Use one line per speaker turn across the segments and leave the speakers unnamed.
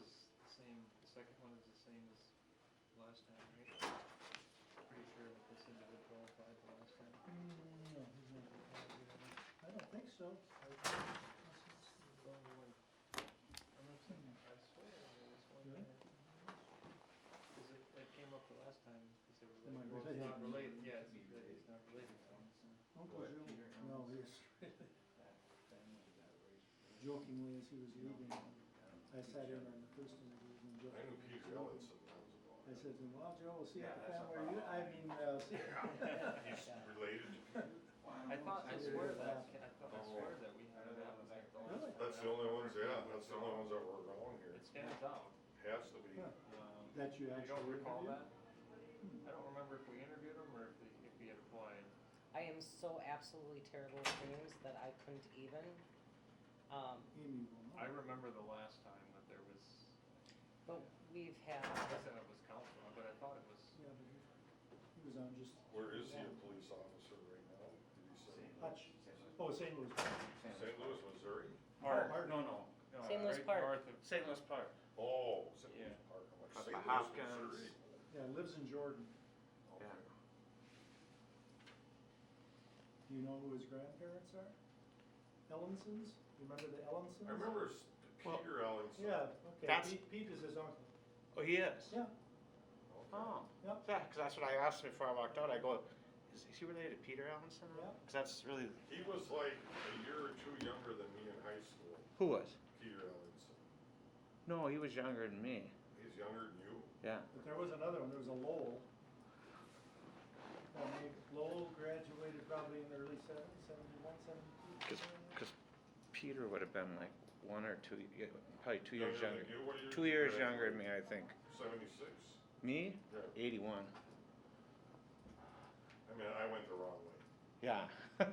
is the same, the second one is the same as last time, right? Pretty sure that this individual applied the last time.
Mm, no, he's not. I don't think so.
The only one- I'm not saying, I swear, there was one
Really?
there. 'Cause it, it came up the last time, because they
They
were
might
like, well, it's not
relate.
related, yeah, it's, it's not related, so.
Uncle
Peter
Joe, no, he's
I
jokingly as he was leaving, I sat in on the first interview and
knew
joked.
Peter Ellenson, that
I
was
said, well, Joe, we'll see if the
Yeah, that's
family, reuni- I mean, uh, see-
about
He's related to Peter.
I thought, I swear that, I thought, I
Oh.
swear that we had uh, that was like. the last time.
Really?
That's the only ones, yeah, that's the only ones that were wrong here.
It's hands down.
Has to be.
Huh. that you
You
actually.
don't recall
interviewed?
that? I don't remember if we interviewed him or if he, if he had applied.
I am so absolutely terrible with names that I couldn't even. Um,
Amy will
I
know.
remember the last time that there was,
but we've
I
had,
guess it was council, but I thought it was,
Yeah, but he- He was on just.
Where is he a police officer right now? Did he say?
Hutch, oh, St. Louis.
St. Louis, Missouri?
Oh, Park.
No, no,
no,
St. Louis
right
Park.
north of-
St. Louis Park.
Oh, St. Louis
Yeah.
Park. I'm like,
Up
St.
by
Louis,
Hopkins.
Missouri?
Yeah, lives in Jordan.
Okay.
Yeah.
Do you know who his grandparents are? Ellensons? You remember the Ellensons?
I remember s-
Well,
Peter Ellenson.
Yeah, okay,
That's-
Pete, Pete is his uncle.
Oh, he is?
Yeah,
Okay.
Oh,
yeah,
yeah, because that's what I asked him before I walked out. I go, is is he related to Peter Allenson?
Yeah.
Because that's really.
He was like a year or two younger than me in high school,
Who was?
Peter Ellenson.
No, he was younger than me.
He's younger than you?
Yeah.
but there was another one, there was a Lowell. Now, maybe Lowell graduated probably in the early seven- seventy-one, seventy-two.
Because Peter would have been like one or two, yeah, probably two years
Younger
younger.
than you? What year
Two
did you
years
graduate?
younger than me, I think.
Seventy-six?
Me?
Yeah.
81.
I mean, I went the wrong way.
Yeah.
That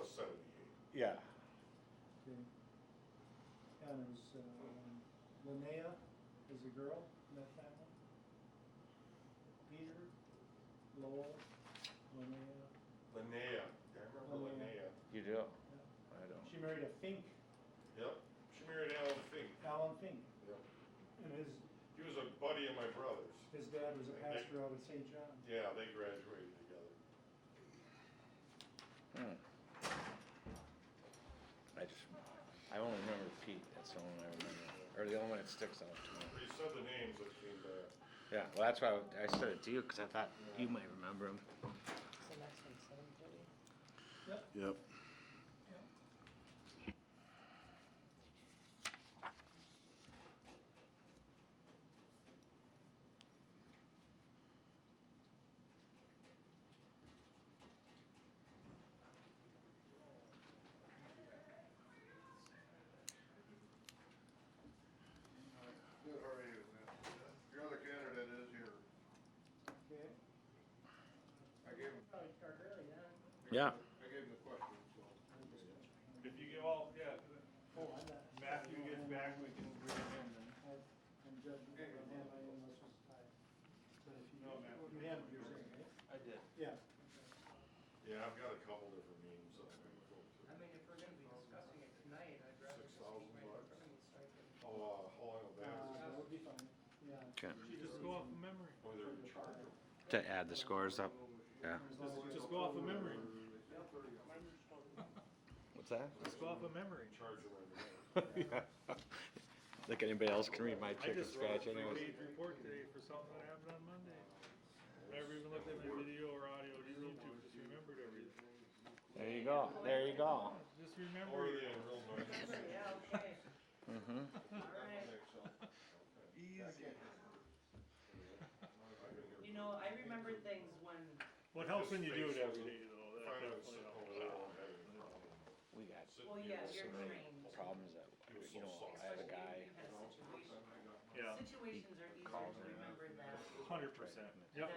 was seventy-eight.
yeah.
Okay. Yeah, And there was, um, Linnea was a girl in that family. Peter, Lowell, Linnea,
Linnea, I remember
Linnea.
Linnea.
You do?
yeah.
I don't.
She married a Fink,
Yep, she married Alan Fink.
Alan Fink,
Yep.
and his,
He was a buddy of my brother's.
his dad was a pastor out of St. John.
Yeah, they graduated together.
Hmm. I just, I only remember Pete. That's the only one I remember, or the only one that sticks out to me.
But you said the names that came back.
Yeah, well, that's why I said it to you because I thought you might remember him.
so next one's seven thirty.
Yep.
Yep.
Good, how are you? Your other candidate is here.
Okay.
I gave him,
Yeah.
I gave him the question, so.
If you get all, yeah,
Oh, I'm not.
Matthew gets back, we can bring him in then.
I- I'm judging by hand, I didn't know this was tied. But if you, you have what you're saying, right?
I did.
Yeah.
Yeah, I've got a couple different names that I'm gonna go
I
through.
mean, if we're gonna be discussing it tonight, I'd rather
Six
just
thousand
keep my
bucks.
personal stipend.
How, uh, how long will
Uh,
that?
that would be fine, yeah.
Okay.
Just go off,
memory.
Oh, they're in charge.
To add the scores up. Yeah.
Just go off of memory.
What's that?
Just go off of memory.
In charge of my name.
yeah. Like anybody else can read my
I
chicken
just wrote
scratch
a
anyways.
three-page report today for something that happened on Monday. Never even looked at my video or audio, just YouTube, just remembered everything.
There you go. There you go.
Just
Or are
remember.
they in real noise?
Yeah, okay,
Mm-hmm.
all right.
Easy.
You know, I remember things when,
What helps when you do it every day though, that
Finally,
definitely
sitting
helps.
over there, I don't have any problem.
We got
Sitting
well,
here,
so
yeah, you're
many
trained.
problems that you know. I have a guy.
Especially when you have situations.
Yeah,
Situations are easier to remember than
hundred percent. Yep.